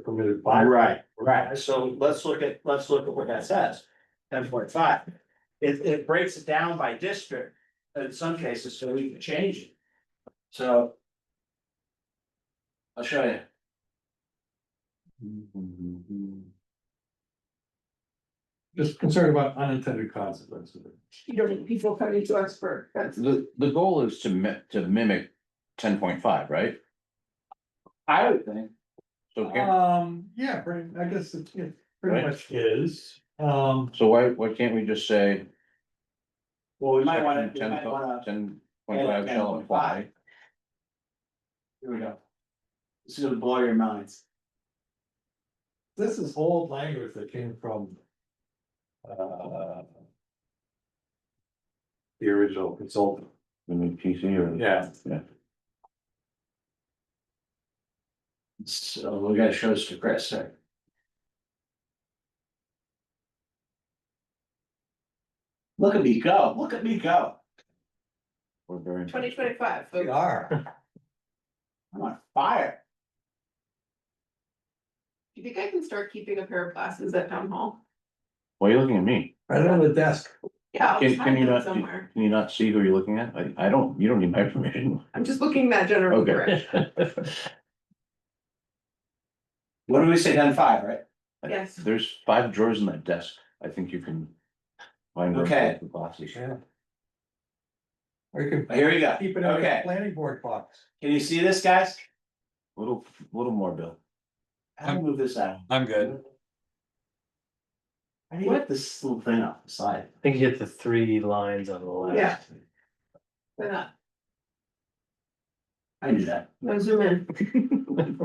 permitted by. Right, right, so let's look at, let's look at what that says, ten point five. It, it breaks it down by district in some cases, so we can change it. So. I'll show you. Just concerned about unintended consequences. You don't need people coming to us for, that's, The, the goal is to mi- to mimic ten point five, right? I would think. So, can- Um, yeah, pretty, I guess it, it pretty Right. much is, um, so why, why can't we just say? Well, we might wanna, we Ten might wanna, point five shall apply, here we go. This is gonna blow your minds. this is old language that came from. Uh. The original consultant. the new PC or? Yeah. So we gotta show this to Chris, sorry. Look at me go, look at me go. We're very. twenty twenty-five, They are. I'm on fire. do you think I can start keeping a pair of glasses at town hall? Why are you looking at me? Right on the desk. Yeah, I'll Can, can find you them not, somewhere, can you not see who you're looking at? I, I don't, you don't need my permission. I'm just looking that general Okay. direction, What do we say, ten five, right? Yes. There's five drawers in that desk. I think you can. Find. where to Okay. put The glasses. Yeah. Or you can Here we go. keep it in the Okay. planning board box. Can you see this, guys? Little, little more, Bill. How do I move this out? I'm good. I need to get this little thing off the side. I think you hit the three lines on the left. yeah. Why not? I do that. No, zoom in.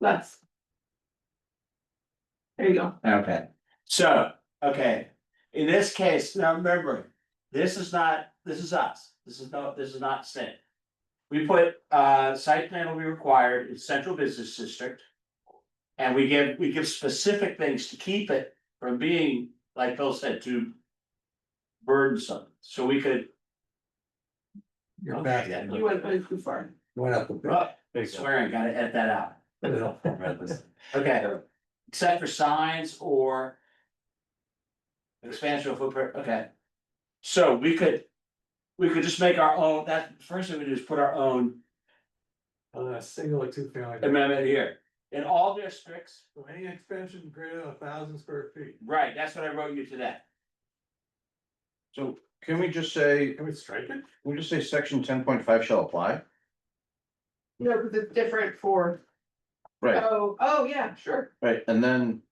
Less. There you go, Okay. So, okay, in this case, now remember, this is not, this is us. This is no, this is not state. We put, uh, site plan will be required in central business district. And we give, we give specific things to keep it from being, like Phil said, too burdensome. So we could, You're Okay, back. yeah. you went, went too far. Went up the. oh, There you go. swearing, gotta edit that out. Right, Okay, except for signs or. Expansion of footprint, okay. So we could, we could just make our own, that first thing we do is put our own Uh, single or two family. amendment here. In all districts, So Any expansion greater than a thousand square feet, right, that's what I wrote you today. So can we just say, can we strike it? we just say section ten point five shall apply? No, because it's different for, Right, oh, oh, yeah, sure, right, and then.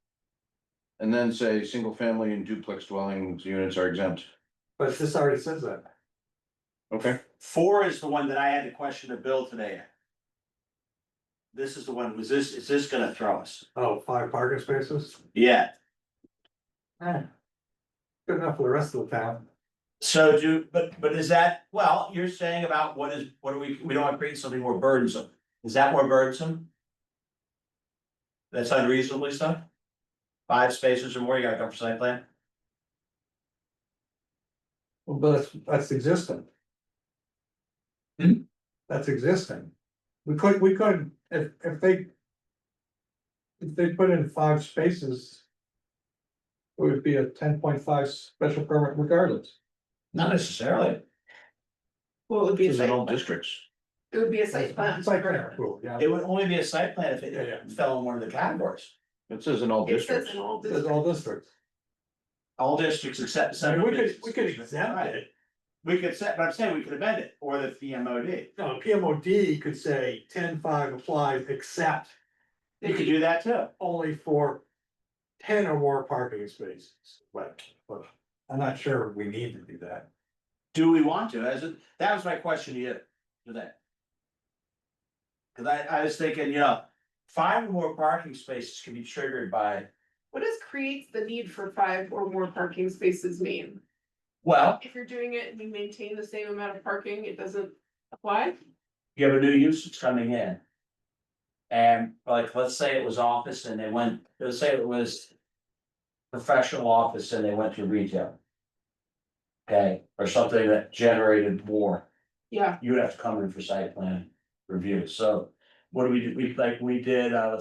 And then say, single family and duplex dwellings units are exempt. But this already says that. Okay. Four is the one that I had to question of Bill today. This is the one, was this, is this gonna throw us? Oh, five parking spaces, Yeah, good enough for the rest of the town. so do, but, but is that, well, you're saying about what is, what are we, we don't want to create something more burdensome. Is that more burdensome? That's unreasonably so? Five spaces or more, you gotta come for site plan? Well, But that's, that's existing. That's existing. We could, we could, if, if they. If they put in five spaces. It would be a ten point five special permit regardless. Not necessarily. well, it would be a This is in site, all districts. it would be a site plan. It's like, yeah, cool, yeah. It would only be a site plan if Yeah, yeah. it fell in one of the categories. It says in all It says districts. in all There's districts. all districts. All districts except. I mean, central we could, we could business districts. exempt Right. it. We could set, but I'm saying we could amend it or the PMOD. No, PMOD could say ten five applies except You could do that too. only for ten or more parking spaces, but, but I'm not sure we need to do that. Do we want to? As it, that was my question to you today. Cause I, I was thinking, you know, five or more parking spaces can be triggered by, What does creates the need for five or more parking spaces mean? well, If you're doing it and you maintain the same amount of parking, it doesn't apply? you have a new use that's coming in. And like, let's say it was office and they went, let's say it was professional office and they went to retail. Okay, or something that generated more. Yeah. you would have to come in for site plan review, so what do we do, we, like, we did, uh,